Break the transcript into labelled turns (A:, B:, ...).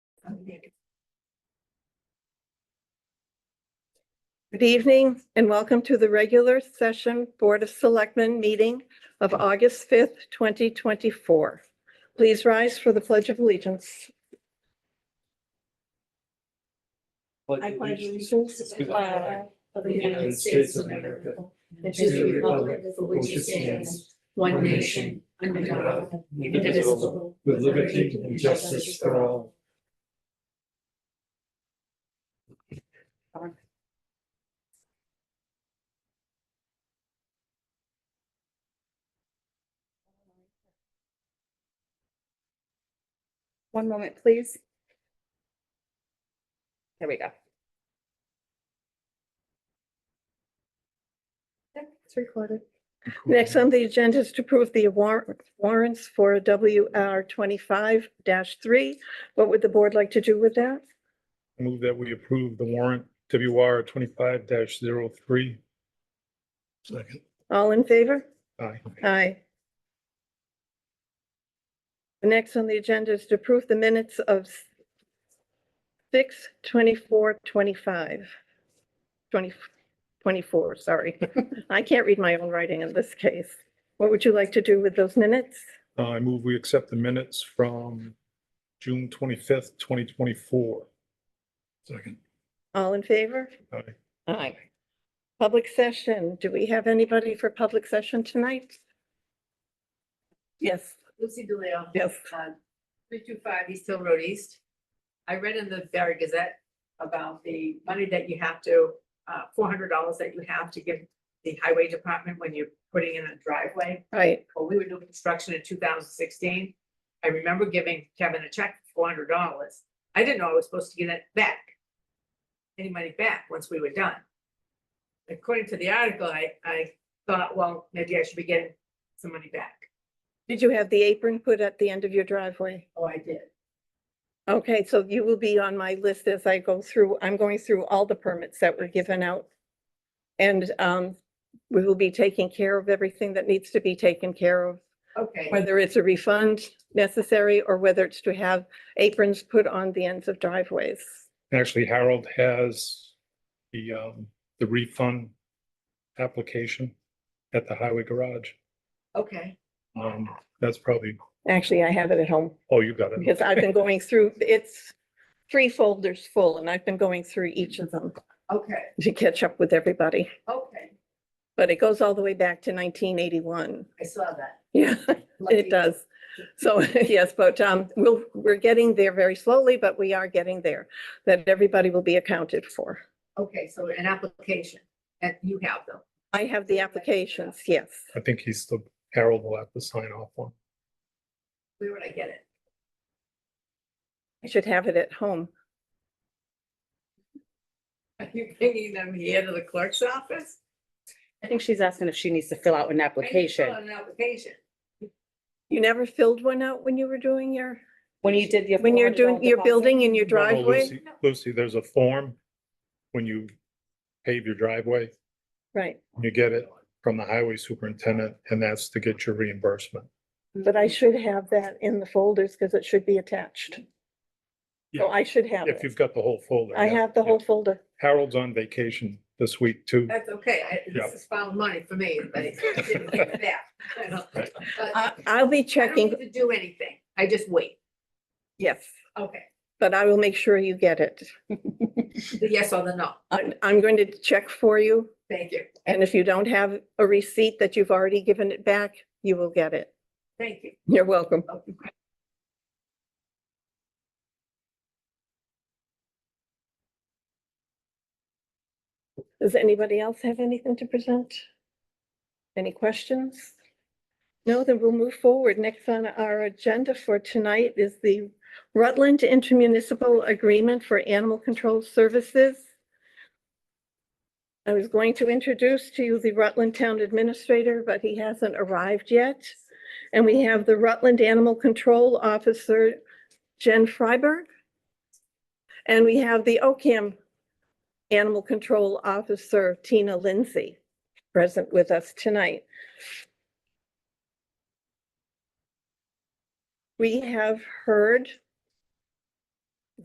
A: Good evening and welcome to the regular session Board of Selectmen meeting of August 5th, 2024. Please rise for the Pledge of Allegiance.
B: I pledge allegiance to the
C: uh,
B: flag of the United States of America and to the republic for which it stands, one nation, under God, indivisible, with liberty and justice for all.
D: One moment, please. There we go. Yep, It's recorded.
A: Next on the agenda is to approve the war- warrants for WR 25-3. What would the board like to do with that?
E: Move that we approve the warrant WR twenty-five 3 Second.
A: All in favor?
E: Aye.
A: Aye. The Next on the agenda is to approve the minutes of 6, 24, 25. 20 24, sorry. I can't read my own writing in this case. What would you like to do with those minutes?
E: Uh, I move we accept the minutes from June twenty-fifth, twenty twenty-four. Second.
A: All in favor?
E: Aye.
A: Aye. Public session. Do we have anybody for public session tonight? Yes,
C: Lucy DeLeo. uh,
A: yes.
C: Three two five East Hill Road East. I read in the Barry Gazette about the money that you have to, uh, four hundred dollars that you have to give the highway department when you're putting in a driveway.
A: Right,
C: Well, we were doing construction in two thousand sixteen. I remember giving Kevin a check for four hundred dollars. I didn't know I was supposed to get it back. Any money back once we were done. According to the article, I, I thought, well, maybe I should be getting some money back.
A: did you have the apron put at the end of your driveway?
C: Oh, I did.
A: Okay, so you will be on my list as I go through, I'm going through all the permits that were given out. And um, we will be taking care of everything that needs to be taken care of,
C: Okay.
A: whether it's a refund necessary or whether it's to have aprons put on the ends of driveways.
E: Actually, Harold has the, um, the refund application at the highway garage.
C: Okay.
E: Um, that's probably,
A: Actually, I have it at home
E: oh, you got it.
A: because I've been going through, it's three folders full and I've been going through each of them
C: Okay,
A: to catch up with everybody.
C: okay,
A: But it goes all the way back to nineteen eighty-one.
C: I saw that.
A: Yeah.
C: Lucky.
A: It does. So, yes, but um, we'll, we're getting there very slowly, but we are getting there, that everybody will be accounted for.
C: Okay, so an application, and you have them.
A: I have the applications, yes.
E: I think he's the, Harold will have to sign off on.
C: Where would I get it?
A: I should have it at home.
C: Are you bringing them here to the clerk's office?
D: I think she's asking if she needs to fill out an
C: I need to fill
D: application.
C: out An application.
A: You never filled one out when you were doing your,
D: When you did your.
A: when you're
D: $400
A: doing your
D: deposit.
A: building in your
E: No, no,
A: driveway?
E: Oh, Lucy- Lucy, there's a form when you pave your driveway.
A: Right,
E: You get it from the highway superintendent and that's to get your reimbursement.
A: but I should have that in the folders because it should be attached. So
E: Yeah.
A: I should have
E: If
A: it.
E: you've got the whole folder.
A: I
E: yeah.
A: have the whole folder.
E: Harold's on vacation this week too.
C: That's okay, I,
E: Yeah.
C: this is found money for me, but I didn't get it back. I don't-
E: Right.
C: but I
D: Uh,
A: I, I'll be
C: don't
A: checking,
C: need to do anything, I just wait.
A: yes,
C: Okay,
A: but I will make sure you get it.
C: the yes or the no,
A: I'm, I'm going to check for you.
C: thank you,
A: And if you don't have a receipt that you've already given it back, you will get it.
C: thank you.
A: You're welcome.
C: Okay.
A: Does anybody else have anything to present? Any questions? No, then we'll move forward. Next on our agenda for tonight is the Rutland Intermunicipal Agreement for Animal Control Services. I was going to introduce to you the Rutland Town Administrator, but he hasn't arrived yet. And we have the Rutland Animal Control Officer, Jen Freiberg. And we have the OCAM Animal Control Officer, Tina Lindsay, present with us tonight. We have heard